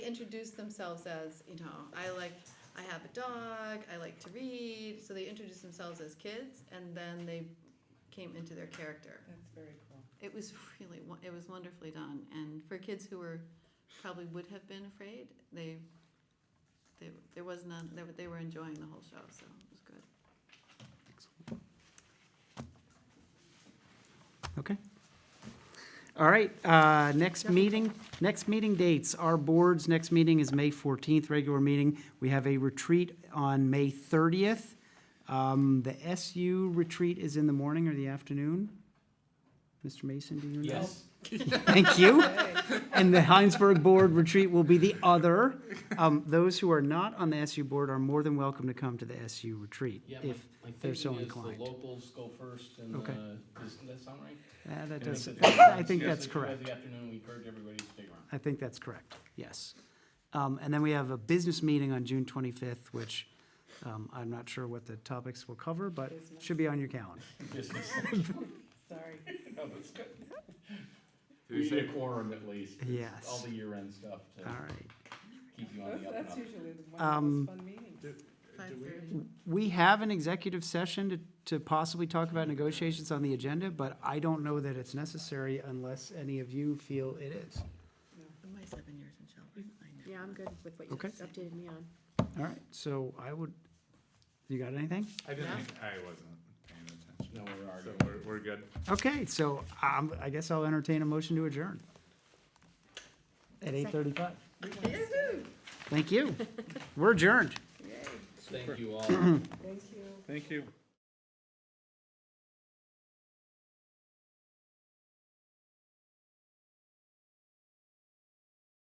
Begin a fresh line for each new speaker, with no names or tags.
introduce themselves as, you know, I like, I have a dog, I like to read. So they introduced themselves as kids and then they came into their character.
That's very cool.
It was really, won- it was wonderfully done. And for kids who were, probably would have been afraid, they, they, there was none, they, were- they were enjoying the whole show, so it was good.
Okay. All right, uh, next meeting, next meeting dates, our board's next meeting is May 14th, regular meeting. We have a retreat on May 30th. Um, The SU retreat is in the morning or the afternoon? Mr. Mason, do you know?
Yes.
Thank you. And the Heinsberg Board Retreat will be the other. Um, Those who are not on the SU Board are more than welcome to come to the SU Retreat
Yeah, my,
if
my
they're so
thinking is
inclined.
the locals go first and,
Okay.
uh, does that sound right?
Uh, That
And
does,
if it's-
I think
yes,
that's
if it was
correct.
The afternoon, we encourage everybody to stick around.
I think that's correct, yes. Um, And then we have a business meeting on June 25th, which um, I'm not sure what the topics will cover, but
Business.
should be on your calendar.
Business.
Sorry.
No, that's good.
Did
We
we
need
say,
a quorum at least. 'cause
Yes.
All the year-end stuff
All
to
right.
keep you on
That's,
the up and
that's
up.
usually the
Um,
one of the most fun meetings.
Five
do we
thirty.
We have an executive session to to possibly talk about negotiations on the agenda, but I don't know that it's necessary unless any of you feel it is.
My seven years in Shelburne, I know.
Yeah, I'm good with what you
Okay.
updated me on.
All right, so I would, you got anything?
I
No.
didn't, I wasn't paying attention.
No, we're
So
arguing.
we're, we're good.
Okay, so um, I guess I'll entertain a motion to adjourn. At 8:35. Thank you. We're adjourned.
Thank you all.
Thank you.
Thank you.